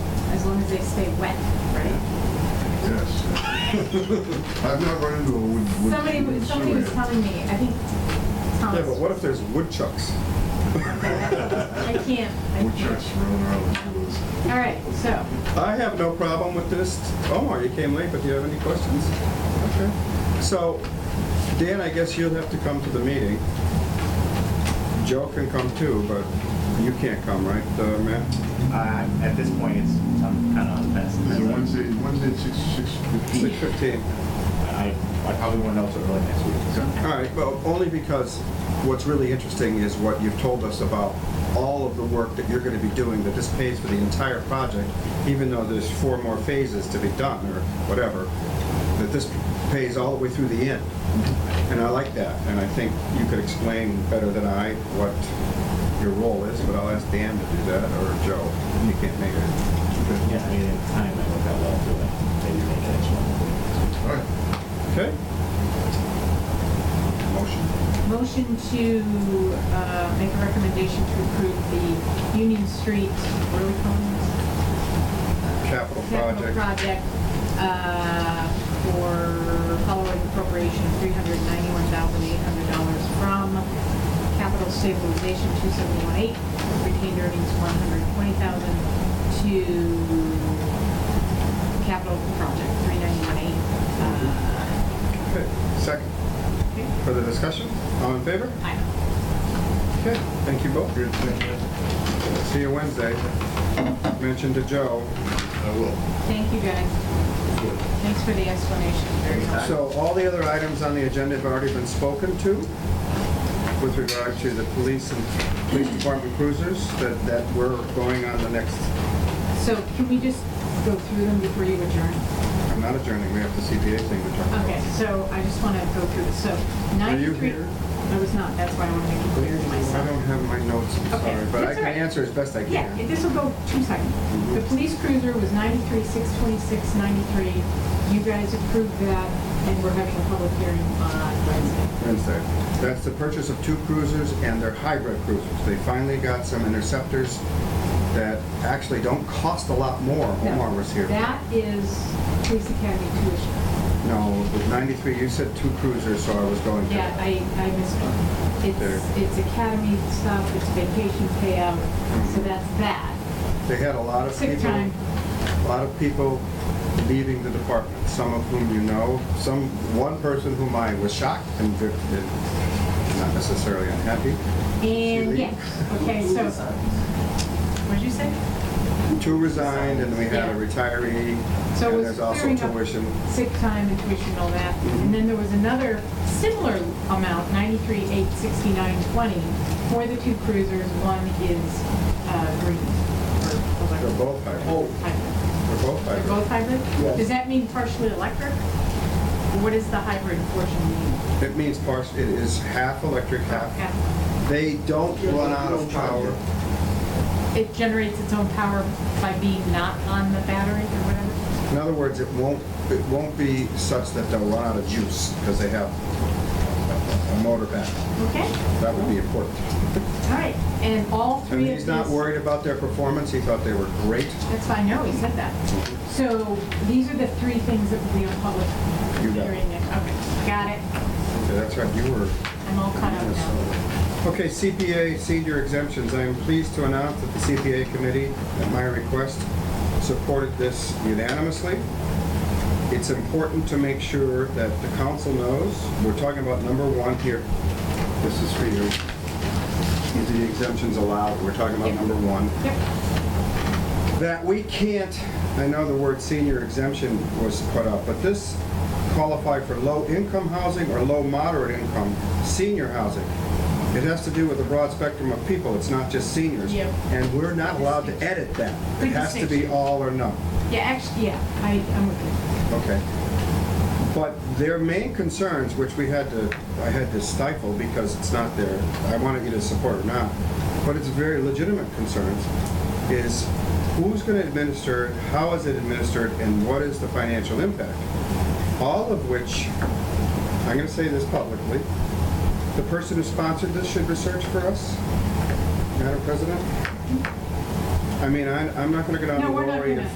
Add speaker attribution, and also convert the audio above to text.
Speaker 1: long as they stay wet, right?
Speaker 2: Yes. I've not run into a wood, wood.
Speaker 1: Somebody,
Speaker 2: wood
Speaker 1: somebody was
Speaker 2: chewing.
Speaker 1: telling me, I think
Speaker 3: Yeah, but
Speaker 1: Thomas,
Speaker 3: what if there's woodchucks?
Speaker 1: I can't, I
Speaker 2: Wood
Speaker 1: can't.
Speaker 2: chucks rolling around the woods.
Speaker 1: All right, so,
Speaker 3: I have no problem with this. Omar, you came late, but do you have any questions? Okay. So, Dan, I guess you'll have to come to the meeting. Joe can come too, but you can't come, right, uh, Matt?
Speaker 4: Uh, at this point, it's, I'm kind of on the fence.
Speaker 2: Is it Wednesday, Wednesday, six, six
Speaker 3: Six
Speaker 2: fifteen?
Speaker 3: fifteen.
Speaker 4: I, I probably won't know till early next week.
Speaker 3: All right, well, only because what's really interesting is what you've told us about all of the work that you're gonna be doing, that this pays for the entire project, even though there's four more phases to be done, or whatever, that this pays all the way through the end. And I like that, and I think you could explain better than I what your role is, but I'll ask Dan to do that, or Joe, you can't make it.
Speaker 4: Yeah, I mean, at the time, I work out well through it. Maybe make it next one.
Speaker 2: All right.
Speaker 3: Okay? Motion.
Speaker 1: motion to, uh, make a recommendation to approve the Union Street, what are we calling this?
Speaker 3: Capital
Speaker 1: capital
Speaker 3: project.
Speaker 1: project uh, for following appropriation of $391,800 from capital stabilization 2718, retained earnings 120,000 to capital project 3918. Uh,
Speaker 3: Okay, second.
Speaker 1: okay.
Speaker 3: Further discussion? All in favor?
Speaker 1: I-
Speaker 3: Okay, thank you both.
Speaker 2: Good, thank you.
Speaker 3: See you Wednesday. Mention to Joe.
Speaker 2: I will.
Speaker 1: Thank you, guys. Thanks for the explanation. Very helpful.
Speaker 3: So all the other items on the agenda have already been spoken to with regard to the police and police department cruisers that, that were going on the next,
Speaker 1: So can we just go through them before you adjourn?
Speaker 3: I'm not adjourning, we have the CPA thing to talk about.
Speaker 1: Okay, so I just want to go through this. So
Speaker 3: Were you
Speaker 1: 93,
Speaker 3: here?
Speaker 1: I was not, that's why I want to make it clear to
Speaker 3: I don't
Speaker 1: myself.
Speaker 3: have my notes, I'm
Speaker 1: Okay,
Speaker 3: sorry, but I
Speaker 1: that's all
Speaker 3: can
Speaker 1: right.
Speaker 3: answer as best I
Speaker 1: Yeah,
Speaker 3: can.
Speaker 1: this will go two seconds.
Speaker 3: Mm-hmm.
Speaker 1: The police cruiser was 93, 626, 93. You guys approved that, and we're having a public hearing on Wednesday.
Speaker 3: Wednesday. That's the purchase of two cruisers and their hybrid cruisers. They finally got some interceptors that actually don't cost a lot more.
Speaker 1: No,
Speaker 3: Omar was here.
Speaker 1: That is police academy tuition.
Speaker 3: No, with 93, you said two cruisers, so I was going to.
Speaker 1: Yeah, I, I missed it.
Speaker 3: There.
Speaker 1: It's, it's academy stuff, it's vacation payout,
Speaker 3: Mm-hmm.
Speaker 1: so that's that.
Speaker 3: They had a lot of
Speaker 1: Sick
Speaker 3: people,
Speaker 1: time.
Speaker 3: a lot of people leaving the department, some of whom you know, some, one person whom I was shocked and ve- and not necessarily unhappy.
Speaker 1: And
Speaker 3: Really?
Speaker 1: yes, okay, so, what'd you say?
Speaker 3: Two resigned, and we had
Speaker 1: Yeah.
Speaker 3: a retiree,
Speaker 1: So it
Speaker 3: and
Speaker 1: was
Speaker 3: there's also
Speaker 1: clearing up-
Speaker 3: tuition.
Speaker 1: sick time and tuition and all that. And then there was another similar amount, ninety-three, eight, sixty-nine, twenty, for the two cruisers. One is, uh, green. or
Speaker 3: They're
Speaker 1: electric.
Speaker 3: both
Speaker 1: Oh,
Speaker 3: hybrid.
Speaker 1: Hybrid.
Speaker 3: They're both
Speaker 1: They're
Speaker 3: hybrid.
Speaker 1: both hybrid?
Speaker 3: Yes.
Speaker 1: Does that mean partially electric? What does the hybrid portion mean?
Speaker 3: It means partial, it is half electric, half.
Speaker 1: Yeah.
Speaker 3: They don't run out of power.
Speaker 1: It generates its own power by being not on the battery or whatever?
Speaker 3: In other words, it won't, it won't be such that they'll run out of juice because they have a motor back.
Speaker 1: Okay,
Speaker 3: That would be important.
Speaker 1: all right. And all
Speaker 3: And
Speaker 1: three of
Speaker 3: he's not
Speaker 1: these-
Speaker 3: worried about their performance. He thought they were great.
Speaker 1: That's fine, no, he said that. So these are the three things that will be on public
Speaker 3: You got it.
Speaker 1: hearing. next- Okay, got it.
Speaker 3: Okay, that's right, you were.
Speaker 1: I'm all caught up now.
Speaker 3: Okay, CPA senior exemptions. I am pleased to announce that the CPA committee, at my request, supported this unanimously. It's important to make sure that the council knows, we're talking about number one here. This is for you. These are the exemptions allowed. We're talking about number one.
Speaker 1: Yep.
Speaker 3: that we can't, I know the word senior exemption was put up, but this qualify for low-income housing or low-moderate income senior housing. It has to do with a broad spectrum of people, it's not just seniors.
Speaker 1: Yep.
Speaker 3: And we're not allowed to edit that. It
Speaker 1: Good
Speaker 3: has to be
Speaker 1: distinction.
Speaker 3: all or none.
Speaker 1: Yeah, actually, yeah, I, I'm with you.
Speaker 3: Okay. But their main concerns, which we had to, I had to stifle because it's not there, I wanted you to support it now, but it's very legitimate concerns, is who's gonna administer it, how is it administered, and what is the financial impact? All of which, I'm gonna say this publicly, the person who sponsored this should research for us, Madam President. I mean, I, I'm not gonna get on
Speaker 1: No,
Speaker 3: the
Speaker 1: we're not
Speaker 3: lorry and
Speaker 1: gonna.